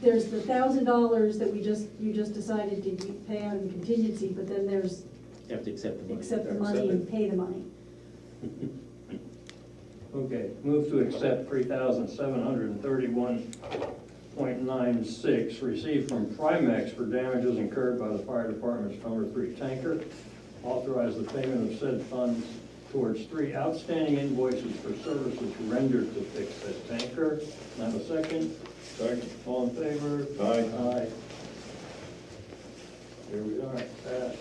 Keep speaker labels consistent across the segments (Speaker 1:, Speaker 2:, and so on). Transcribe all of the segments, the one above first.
Speaker 1: there's the thousand dollars that we just, you just decided to keep- pay out in contingency, but then there's
Speaker 2: You have to accept the money.
Speaker 1: accept the money and pay the money.
Speaker 3: Okay, move to accept three thousand seven hundred and thirty-one point nine six received from Primex for damages incurred by the fire department's number three tanker. Authorize the payment of said funds towards three outstanding invoices for services rendered to fix said tanker. Can I have a second? Second. All in favor?
Speaker 4: Aye.
Speaker 3: Aye. Here we are, passed.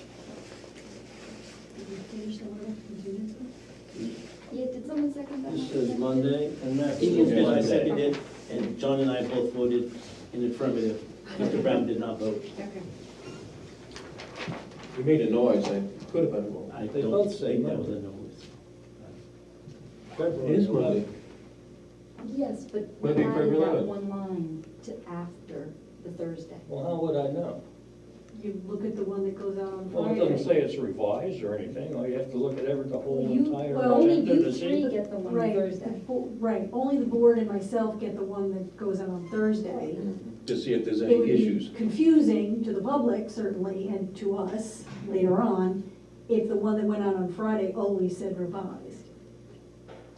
Speaker 1: Did we finish the one with contingency?
Speaker 5: Yeah, did someone second that?
Speaker 3: This is Monday, and that's.
Speaker 2: Ian's been, I
Speaker 3: Monday.
Speaker 2: seconded, and John and I both voted in affirmative. Mr. Brown did not vote.
Speaker 5: Okay.
Speaker 4: You made a noise, I could have been wrong.
Speaker 2: I
Speaker 3: They
Speaker 2: don't
Speaker 3: both say
Speaker 2: think that
Speaker 3: no.
Speaker 2: was a no.
Speaker 4: It is Monday.
Speaker 6: Yes, but we
Speaker 4: Monday,
Speaker 6: added
Speaker 4: February
Speaker 6: that
Speaker 4: 11th.
Speaker 6: one line to after the Thursday.
Speaker 3: Well, how would I know?
Speaker 1: You look at the one that goes out on
Speaker 3: Well, it
Speaker 1: Friday.
Speaker 3: doesn't say it's revised or anything, all you have to look at every, the whole
Speaker 6: You-
Speaker 1: well,
Speaker 3: entire
Speaker 6: Only
Speaker 3: agenda
Speaker 6: you
Speaker 3: to
Speaker 6: three
Speaker 3: see.
Speaker 6: get the one
Speaker 1: Right,
Speaker 6: Thursday.
Speaker 1: the bo- Right, only the board and myself get the one that goes out on Thursday.
Speaker 4: To see if there's
Speaker 1: It would
Speaker 4: any
Speaker 1: be
Speaker 4: issues.
Speaker 1: confusing to the public certainly, and to us later on, if the one that went out on Friday always said revised.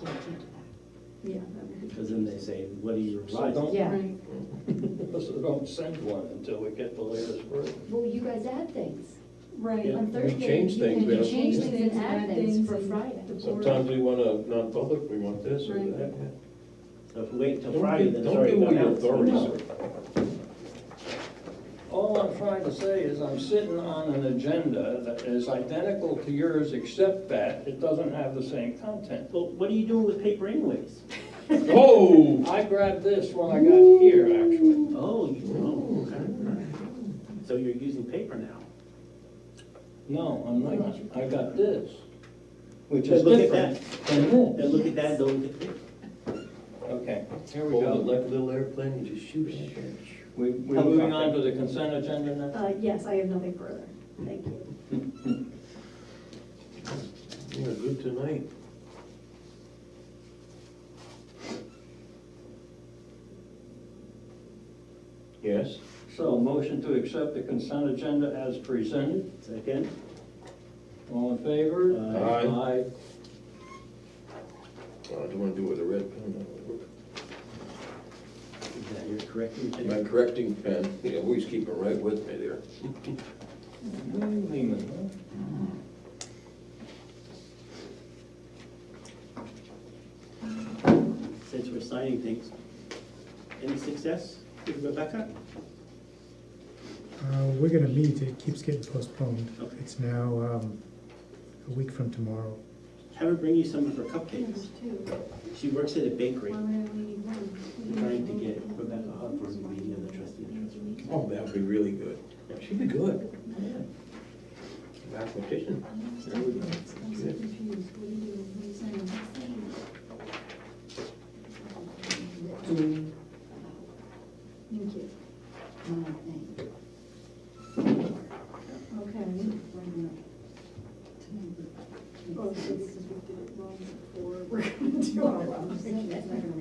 Speaker 6: Yeah, can't do that.
Speaker 1: Yeah, that would be.
Speaker 2: Because then they say, what are you
Speaker 3: So
Speaker 2: revising?
Speaker 3: don't,
Speaker 6: Yeah.
Speaker 1: Right.
Speaker 3: so don't send one until we get the latest version.
Speaker 6: Well, you guys add things.
Speaker 1: Right.
Speaker 3: Yeah.
Speaker 6: On Thursday,
Speaker 4: change
Speaker 6: you
Speaker 4: things, we
Speaker 6: can
Speaker 4: don't-
Speaker 6: change things and
Speaker 1: add
Speaker 6: add things for
Speaker 1: things and-
Speaker 6: Friday.
Speaker 1: the board-
Speaker 4: Sometimes we want a non-public, we want this or
Speaker 1: Right.
Speaker 4: that.
Speaker 2: So if we wait
Speaker 4: Don't
Speaker 2: until Friday,
Speaker 4: give-
Speaker 2: then it's already
Speaker 4: Don't
Speaker 2: gone
Speaker 4: give away your
Speaker 2: out.
Speaker 4: authorities.
Speaker 3: All I'm trying to say is I'm sitting on an agenda that is identical to yours, except that it doesn't have the same content.
Speaker 2: Well, what are you doing with paper anyways?
Speaker 4: Oh!
Speaker 3: I grabbed this when I got here, actually.
Speaker 2: Oh, you, oh, okay. So you're using paper now?
Speaker 3: No, I'm not, I got this, which
Speaker 2: Then
Speaker 3: is
Speaker 2: look at
Speaker 3: different than
Speaker 2: Then
Speaker 3: this.
Speaker 2: look at that, don't look at paper.
Speaker 3: Okay, here we
Speaker 4: Hold it
Speaker 3: go.
Speaker 4: like a little airplane, you just shoot it.
Speaker 3: We- We're moving on to the consent agenda now?
Speaker 1: Uh, yes, I have nothing further, thank you.
Speaker 4: You're good tonight. Yes?
Speaker 3: So, motion to accept the consent agenda as presented.
Speaker 2: Second?
Speaker 3: All in favor?
Speaker 4: Aye.
Speaker 3: Aye.
Speaker 4: Well, I do want to do it with a red pen.
Speaker 2: Is that your correcting? thing?
Speaker 4: My correcting pen, you always keep it right with me there.
Speaker 3: Lou Lehman,
Speaker 2: since we're signing things. Any success with Rebecca?
Speaker 7: Uh, We're gonna meet, it keeps getting postponed.
Speaker 2: Okay.
Speaker 7: It's now um, a week from tomorrow.
Speaker 2: Have her bring you some of her
Speaker 1: Yeah,
Speaker 2: cupcakes.
Speaker 1: There's two,
Speaker 2: She works at a bakery.
Speaker 1: why would I only need one?
Speaker 2: We're trying to get Rebecca Hunt for the meeting of the trustee and trustee.
Speaker 4: Oh, that would be really good. She'd be good. Mathematician.
Speaker 5: I'm so
Speaker 4: There we go.
Speaker 5: confused, what are you doing, what are you saying, What's saying?
Speaker 6: Do
Speaker 5: Thank you.
Speaker 6: my thing.
Speaker 1: Okay,
Speaker 6: Right now. Tonight,
Speaker 1: oh, so
Speaker 6: it's-
Speaker 1: Oh, this is, we did it wrong before, we're gonna do our
Speaker 6: I'm
Speaker 1: own.
Speaker 6: saying it's not gonna
Speaker 1: Um,